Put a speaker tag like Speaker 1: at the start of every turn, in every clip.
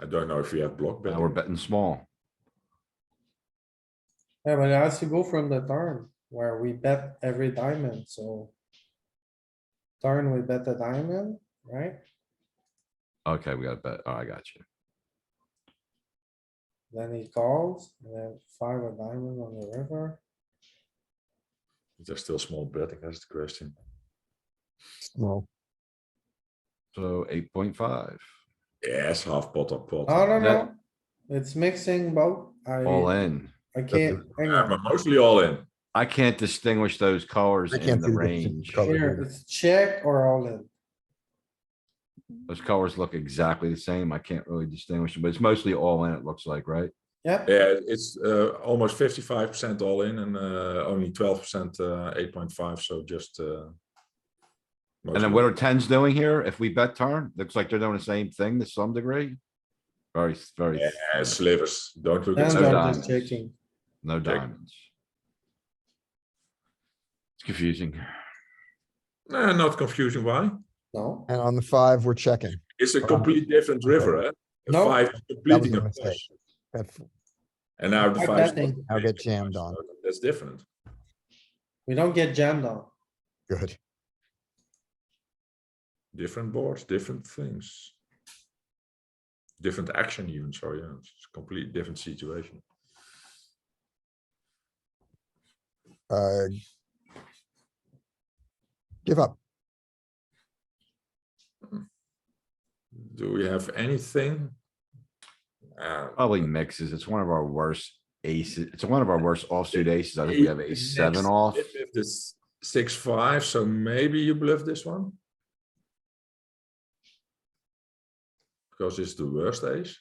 Speaker 1: I don't know if you have block
Speaker 2: Now we're
Speaker 1: betting.
Speaker 2: betting small.
Speaker 3: Yeah, but as you go from the turn where we bet every diamond, so. Turn, we bet the diamond, right?
Speaker 2: Okay, we gotta bet. Oh, I got you.
Speaker 3: Then he calls, and then five a diamond on the river.
Speaker 1: There's still small betting, that's the question.
Speaker 4: Well,
Speaker 2: So eight point five,
Speaker 1: Yes, half pot or pot.
Speaker 3: Oh, no, no,
Speaker 2: That-
Speaker 3: it's mixing both.
Speaker 2: all
Speaker 3: I,
Speaker 2: in.
Speaker 3: I can't, hang
Speaker 1: Yeah, but
Speaker 3: on.
Speaker 1: mostly all in.
Speaker 2: I can't distinguish those colors
Speaker 4: I
Speaker 2: in
Speaker 4: can't
Speaker 2: the
Speaker 4: see the difference in
Speaker 2: range.
Speaker 4: color.
Speaker 3: Here, it's check or all in.
Speaker 2: Those colors look exactly the same. I can't really distinguish them, but it's mostly all in, it looks like, right?
Speaker 3: Yep,
Speaker 1: Yeah, it's uh, almost fifty-five percent all in and uh, only twelve percent, uh, eight point five, so just, uh.
Speaker 2: And then what are tens doing here? If we bet turn, looks like they're doing the same thing to some degree. Very, s- very, s-
Speaker 1: Yeah, slivers, don't look at
Speaker 3: then
Speaker 2: no
Speaker 3: I'm
Speaker 1: slivers.
Speaker 2: diamonds.
Speaker 3: just checking.
Speaker 2: no
Speaker 1: check.
Speaker 2: diamonds. It's confusing.
Speaker 1: Nah, not confusing, why?
Speaker 3: No,
Speaker 4: and on the five, we're checking.
Speaker 1: It's
Speaker 4: Uh-huh.
Speaker 1: a complete different river, eh? A
Speaker 3: No.
Speaker 1: Five is completing
Speaker 4: a
Speaker 1: a
Speaker 4: mistake.
Speaker 1: flush.
Speaker 4: That
Speaker 1: And now the
Speaker 3: I'm
Speaker 1: five.
Speaker 3: betting.
Speaker 4: I'll get jammed on.
Speaker 1: That's different.
Speaker 3: we don't get jammed on.
Speaker 4: good.
Speaker 1: Different boards, different things. Different action even, so yeah, it's a complete different situation.
Speaker 4: Uh, give up.
Speaker 1: Do we have anything? Uh,
Speaker 2: Probably mixes. It's one of our worst aces. It's one of our worst offsuit aces. I think we have
Speaker 1: Eight
Speaker 2: ace seven
Speaker 1: next.
Speaker 2: off.
Speaker 1: If if this six, five, so maybe you bluff this one? Because it's the worst ace.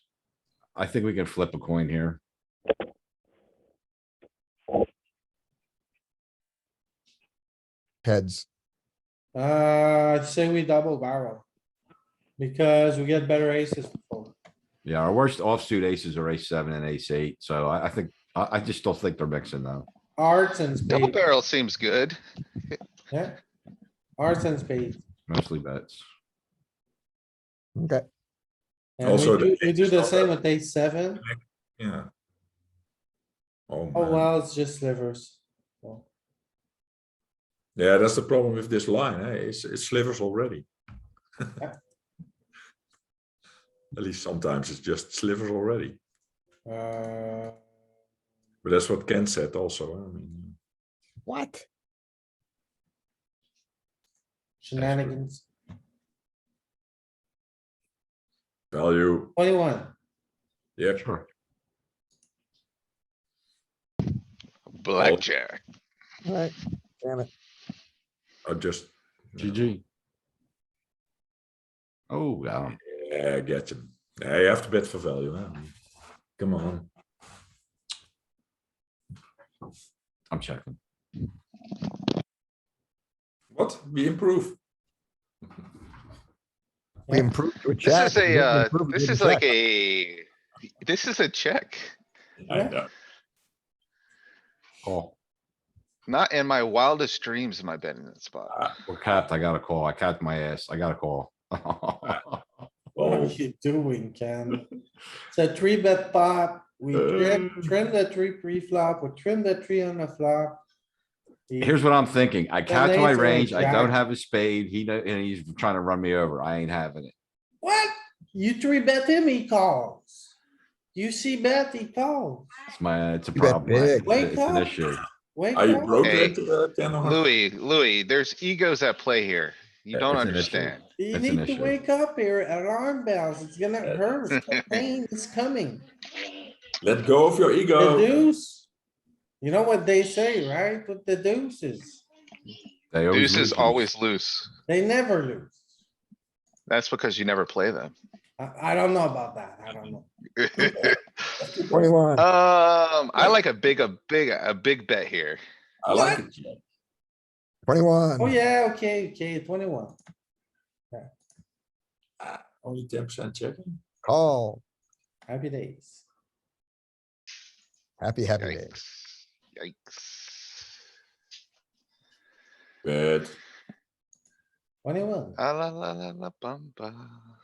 Speaker 2: I think we can flip a coin here.
Speaker 4: Heads.
Speaker 3: Uh, I'd say we double barrel. Because we get better aces. to fold.
Speaker 2: Yeah, our worst offsuit aces are ace seven and ace eight, so I, I think, I, I just don't think they're mixing though.
Speaker 3: Hearts and
Speaker 5: Double
Speaker 3: spades,
Speaker 5: barrel seems good.
Speaker 3: yeah? Hearts and spades.
Speaker 2: Mostly bets.
Speaker 4: Okay.
Speaker 3: And we
Speaker 1: Also, the
Speaker 3: do- We
Speaker 1: king
Speaker 3: do
Speaker 1: is
Speaker 3: the
Speaker 1: not
Speaker 3: same
Speaker 1: a-
Speaker 3: with ace seven.
Speaker 1: Yeah. Oh,
Speaker 3: Oh,
Speaker 1: man.
Speaker 3: well, it's just slivers. Well,
Speaker 1: Yeah, that's the problem with this line, eh? It's, it slivers already. At least sometimes it's just slivers already.
Speaker 3: Uh,
Speaker 1: But that's what Ken said also. eh, I mean,
Speaker 4: What?
Speaker 3: shenanigans,
Speaker 1: value,
Speaker 3: twenty-one.
Speaker 1: yeah,
Speaker 2: Sure. Oh,
Speaker 5: Blackjack.
Speaker 4: Alright, damn it.
Speaker 1: I just,
Speaker 2: GG. Oh, wow.
Speaker 1: yeah, get him. Yeah, you have to bet for value, eh? I mean, Come on.
Speaker 2: I'm checking.
Speaker 1: What? We improve.
Speaker 4: We improved to a check.
Speaker 5: This is
Speaker 4: We
Speaker 5: a,
Speaker 4: didn't
Speaker 5: uh,
Speaker 4: improve, we
Speaker 5: this
Speaker 4: did a
Speaker 5: is like
Speaker 4: check.
Speaker 5: a, this is a check.
Speaker 1: I
Speaker 3: Yeah.
Speaker 1: know.
Speaker 2: Call.
Speaker 5: Not in my wildest dreams am I betting that spot.
Speaker 2: We're capped. I got a call. I capped my ass. I got a call.
Speaker 3: What are
Speaker 1: Oh,
Speaker 3: you doing, Ken? It's a three bet pot. We trim,
Speaker 1: Uh.
Speaker 3: trim the three pre-flop, we trim the three on the flop. He-
Speaker 2: Here's what I'm thinking. I capped my
Speaker 3: ace and a
Speaker 2: range. I don't
Speaker 3: jack.
Speaker 2: have a spade. He, know- and he's trying to run me over. I ain't having it.
Speaker 3: What? You three bet him, he calls. You see bet, he calls.
Speaker 2: It's my, it's a
Speaker 4: You bet
Speaker 2: problem. I-
Speaker 4: big.
Speaker 2: It's a- it's an
Speaker 3: Wake up.
Speaker 2: issue.
Speaker 3: Wait.
Speaker 1: are you
Speaker 3: what?
Speaker 1: broke
Speaker 5: Hey,
Speaker 1: that, uh, Ken? or not?
Speaker 5: Louis, Louis, there's egos at play here. You
Speaker 1: Yeah,
Speaker 5: don't
Speaker 2: it's an issue.
Speaker 5: understand.
Speaker 3: You
Speaker 2: That's an
Speaker 3: need to
Speaker 2: issue. Uh,
Speaker 3: wake up here, alarm bells, it's gonna
Speaker 1: Yeah.
Speaker 3: hurt, the pain is coming,
Speaker 1: Let go of your
Speaker 3: the
Speaker 1: ego.
Speaker 3: deuce. You know what they say, right, with the deuces,
Speaker 2: They always
Speaker 5: Deuce is
Speaker 2: lose.
Speaker 5: always loose.
Speaker 3: they never lose.
Speaker 5: That's because you never play them.
Speaker 3: I, I don't know about that, I don't know.
Speaker 4: Twenty-one.
Speaker 5: Um, I like a big, a big, a big bet here.
Speaker 1: I like it. Ken.
Speaker 4: Twenty-one.
Speaker 3: Oh, yeah, okay, okay, twenty-one,
Speaker 1: Only ten percent checking.
Speaker 4: Call.
Speaker 3: happy days.
Speaker 4: Happy, happy day.
Speaker 5: Yikes. Yikes.
Speaker 1: Good.
Speaker 3: Twenty-one.
Speaker 5: Ah, la, la, la, la, bum, bum.